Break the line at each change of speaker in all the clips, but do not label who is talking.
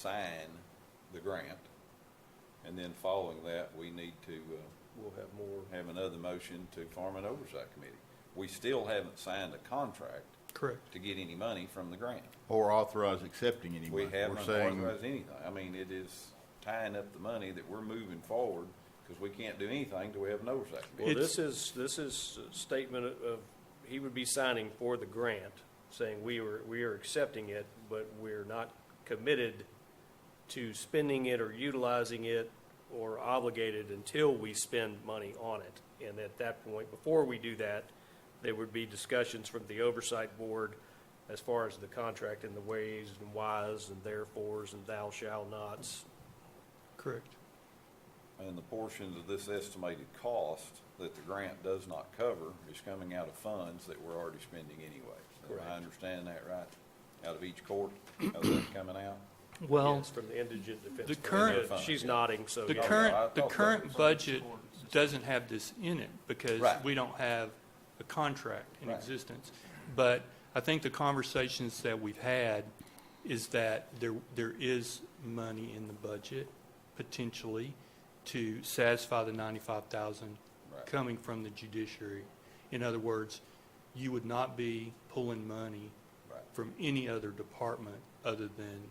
sign the grant. And then following that, we need to, uh,
We'll have more.
have another motion to form an oversight committee. We still haven't signed a contract
Correct.
to get any money from the grant.
Or authorize accepting any
We
money.
haven't
We're saying
authorized anything. I mean, it is tying up the money that we're moving forward because we can't do anything till we have an oversight
Well,
committee.
this is, this is a statement of- of, he would be signing for the grant, saying we are, we are accepting it, but we're not committed to spending it or utilizing it or obligated until we spend money on it. And at that point, before we do that, there would be discussions from the oversight board as far as the contract and the ways and whys and therefores and thou shall nots.
Correct.
And the portions of this estimated cost that the grant does not cover is coming out of funds that we're already spending anyway. Am I understand that right? Out of each court, how's that coming out?
Well,
Yes, From the indigent defense.
the
Fund.
current-
Yeah, She's nodding, so.
the
yeah.
I
current, the
thought that
current
was-
budget doesn't have this in it because
Right.
we don't have a contract in
Right.
existence. But I think the conversations that we've had is that there, there is money in the budget potentially to satisfy the ninety-five thousand
Right.
coming from the judiciary. In other words, you would not be pulling money
Right.
from any other department other than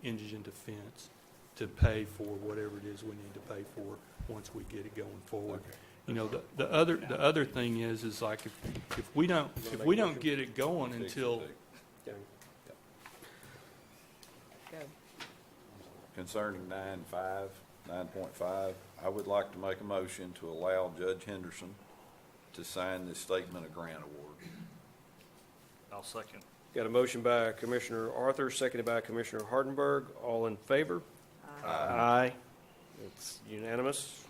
indigent defense to pay for whatever it is we need to pay for once we get it going forward. You know, the, the other, the other thing is, is like if, if we don't, if we don't get it going until,
Go.
Concerning nine five, nine point five, I would like to make a motion to allow Judge Henderson to sign this statement of grant award.
I'll second.
Got a motion by Commissioner Arthur, seconded by Commissioner Hardenberg. All in favor? Aye. It's unanimous.